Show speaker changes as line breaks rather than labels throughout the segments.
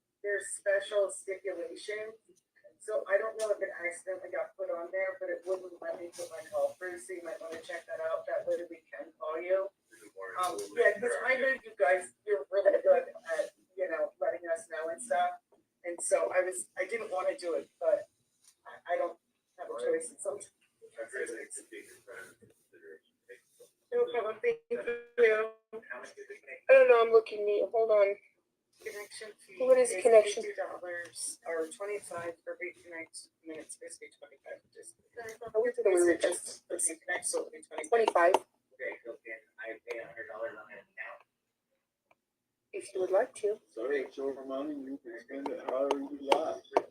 a special stipulation. So I don't know if it accidentally got put on there, but it wouldn't let me put my call through, so you might wanna check that out, that way we can call you. Um, yeah, cause I know you guys, you're really good at, you know, letting us know and stuff. And so I was, I didn't wanna do it, but I, I don't have a choice, it's something. No problem, thank you.
I don't know, I'm looking neat, hold on.
Connection fee.
What is connection?
Fifty dollars or twenty-five for reconnect, I mean, it's basically twenty-five, just.
I went to the one that just
Just, let's see, connect, so it'll be twenty-five.
twenty-five,
Okay, so can I pay a hundred dollars on an account?
if you would like to.
So it's your money, you can spend it however you like.
What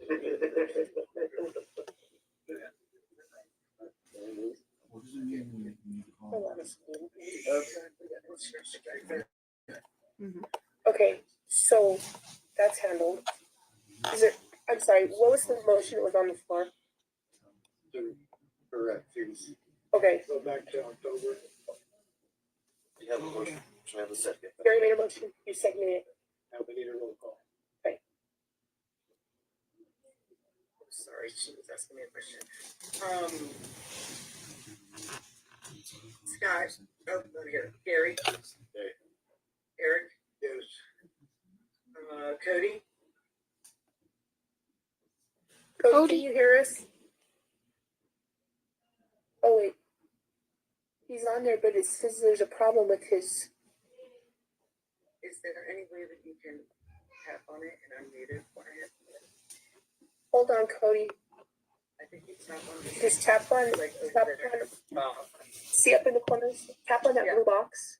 does it mean when you need to
Hold
call?
on a second.
Okay.
Okay, so that's handled. Is it, I'm sorry, what was the motion that was on the floor?
To correct fees.
Okay,
Go back to October.
You have a motion, should I have a second?
Barry made a motion, you seconded it.
Now we need a roll call.
Sorry, she was asking me a question. Um. Scott, oh, no, here, Gary.
Hey.
Eric,
Yes.
uh, Cody,
Cody, can you hear us? Oh, wait. He's on there, but it says there's a problem with his,
is there any way that you can tap on it and unmute it for him?
hold on, Cody,
I think it's not one of the.
just tap on,
Like, over
tap
there.
on,
Oh,
see up in the corners, tap on that
Yeah.
blue box.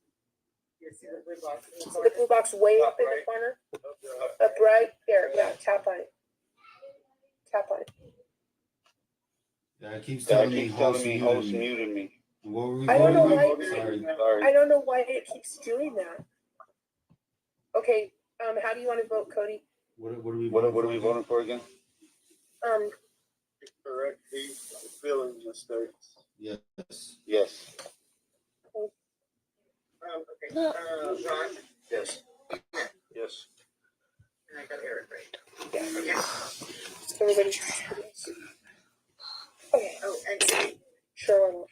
You see the blue box? in the
So
corner?
the blue box way up in the
Upright.
corner, up right there, yeah, tap on it. Tap on it.
Yeah, it keeps
Yeah,
telling
it
me
keeps telling
host
me host
muted.
muted me.
What were we
I don't
voting
know
on?
why-
Sorry.
Sorry.
I don't know why it keeps doing that. Okay, um, how do you wanna vote, Cody?
What, what are we?
What,
voting
what are
for
we
again?
voting for again?
Um,
Correct fees, billing mistakes.
Yes.
Yes.
Um, okay, uh, Ron,
Yes.
Yes.
and I got Eric right.
Yeah.
Okay,
so everybody. Okay,
oh, and, okay.
sure,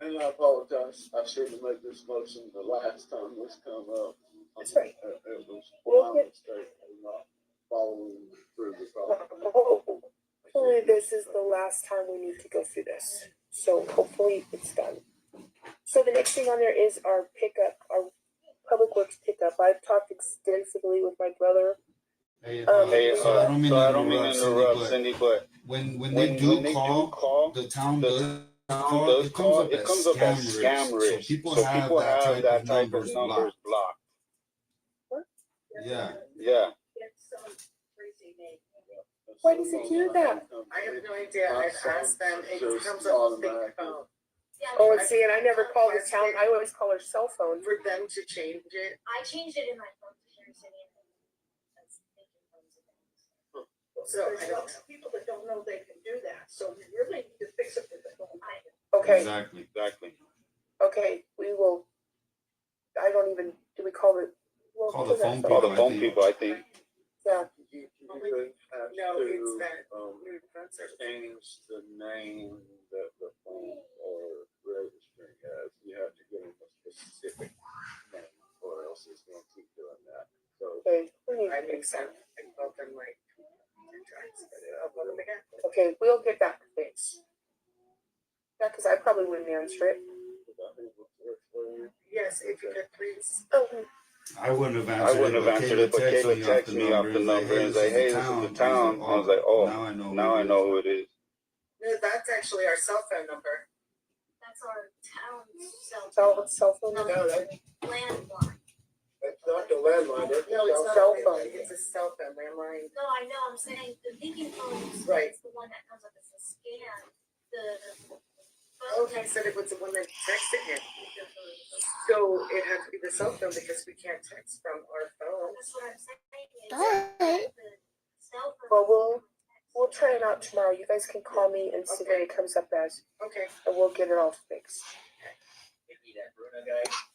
And I apologize, I should have made this motion the last time this come up.
That's right.
It it was
Well,
my mistake, I'm not following through the process.
hopefully this is the last time we need to go through this, so hopefully it's done. So the next thing on there is our pickup, our public works pickup. I've talked extensively with my brother
Hey,
Um,
Hey,
uh, so I don't mean
so I don't mean
to
to
interrupt,
interrupt
Cindy,
Cindy, but
but when, when
when,
they
when
do
they do
call,
call,
the town
the
does. call,
those call, it comes up as
scam
scam
risk.
risk.
So people have that type of numbers blocked.
blocked.
Yeah.
Yeah,
Why does it do that?
I have no idea, I've asked them, it
Just
comes up on the
automatic.
phone.
Oh, and see, and I never call the town, I always call her cell phone.
For them to change it,
I changed it in my phone to Sherry City. and that's making phones a thing.
so I don't know.
people that don't know they can do that, so we really need to fix it with the whole mind.
Okay,
Exactly.
exactly.
okay, we will, I don't even, do we call it? well,
Call the
who does
phone
that?
All
People,
the
I
phone
think.
people, I think.
Yeah,
You you could have
No, it's
to,
that-
um,
New concept.
change the name that the phone or registering as, you have to give them a specific name, or else it's gonna keep doing that. So,
okay, we need
I
to
think
fix
so,
that.
I called them like two times, but I'll call them again.
Okay, we'll get that fixed. Yeah, cause I probably wouldn't answer it.
that is what works for you.
Yes, if you could please.
Oh,
I wouldn't have
I
answered
wouldn't have answered it, but Kayla texted me off the number and say, hey, this is the town. I was like, oh,
Now I know.
now
who
I
it is."
know who it is.
No, that's actually our cell phone number.
That's our town cell.
cell, cell phone,
No,
No, that-
Landline.
That's not the landline, that's.
No, it's
cell
not
Cell
a
phone.
landline, it's a cell phone landline.
No, I know, I'm saying the thinking phones. is
Right.
The one that comes up as a scam, the.
Oh, he said it was the one that texted him. So it had to be the cell phone because we can't text from our phone.
That's what I'm saying is.
But-
the Cell phone.
Well, we'll- we'll try it out tomorrow. You guys can call me and see what it comes up as,
Okay,
and we'll get it all fixed.
Maybe that Bruno guy,
Uh-huh.